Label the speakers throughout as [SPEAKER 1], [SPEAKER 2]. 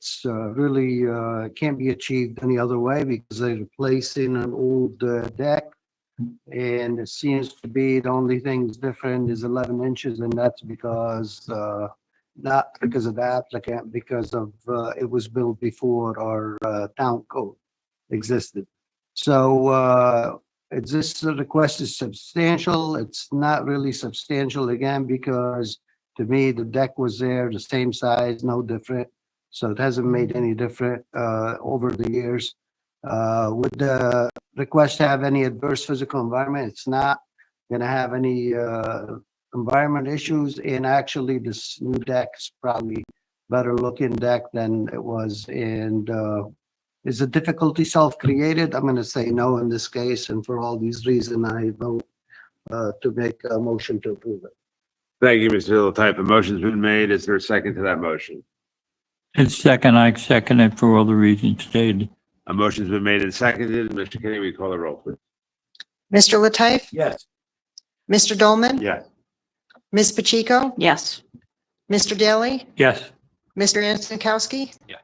[SPEAKER 1] It's uh, really uh, can't be achieved any other way because they're replacing an old uh, deck. And it seems to be the only thing that's different is 11 inches and that's because, uh, not because of the applicant, because of, uh, it was built before our uh, town code existed. So uh, it's this request is substantial. It's not really substantial again because to me, the deck was there, the same size, no different. So it hasn't made any different uh, over the years. Uh, Would the request have any adverse physical environment? It's not going to have any uh, environment issues. And actually, this new deck is probably better looking deck than it was. And uh, is the difficulty self-created? I'm going to say no in this case. And for all these reasons, I vote uh, to make a motion to approve it.
[SPEAKER 2] Thank you, Mr. Hill. Type of motion's been made. Is there a second to that motion?
[SPEAKER 3] It's second, I second it for all the reasons stated.
[SPEAKER 2] A motion's been made and seconded. Mr. Kenny, we call the roll, please.
[SPEAKER 4] Mr. Latif?
[SPEAKER 2] Yes.
[SPEAKER 4] Mr. Dolman?
[SPEAKER 2] Yes.
[SPEAKER 4] Ms. Pacheco?
[SPEAKER 5] Yes.
[SPEAKER 4] Mr. Daly?
[SPEAKER 3] Yes.
[SPEAKER 4] Mr. Antonkowski?
[SPEAKER 2] Yeah.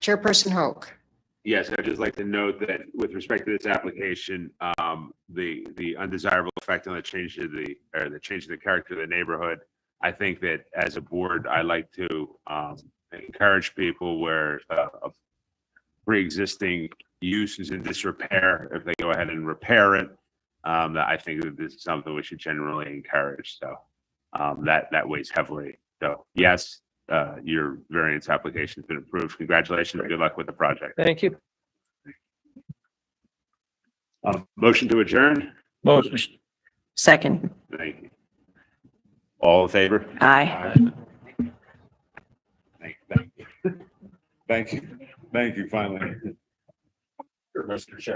[SPEAKER 4] Chairperson Hoke?
[SPEAKER 2] Yes, I'd just like to note that with respect to this application, um, the, the undesirable effect on the change to the, or the change in the character of the neighborhood. I think that as a board, I like to, um, encourage people where, uh, a pre-existing use is in disrepair, if they go ahead and repair it. Um, that I think that this is something we should generally encourage, so, um, that, that weighs heavily. So, yes, uh, your variance application's been approved. Congratulations. Good luck with the project.
[SPEAKER 6] Thank you.
[SPEAKER 2] Uh, motion to adjourn?
[SPEAKER 3] Motion.
[SPEAKER 5] Second.
[SPEAKER 2] Thank you. All in favor?
[SPEAKER 5] Aye.
[SPEAKER 2] Thank thank you. Thank you. Thank you, finally. Mr. Chair.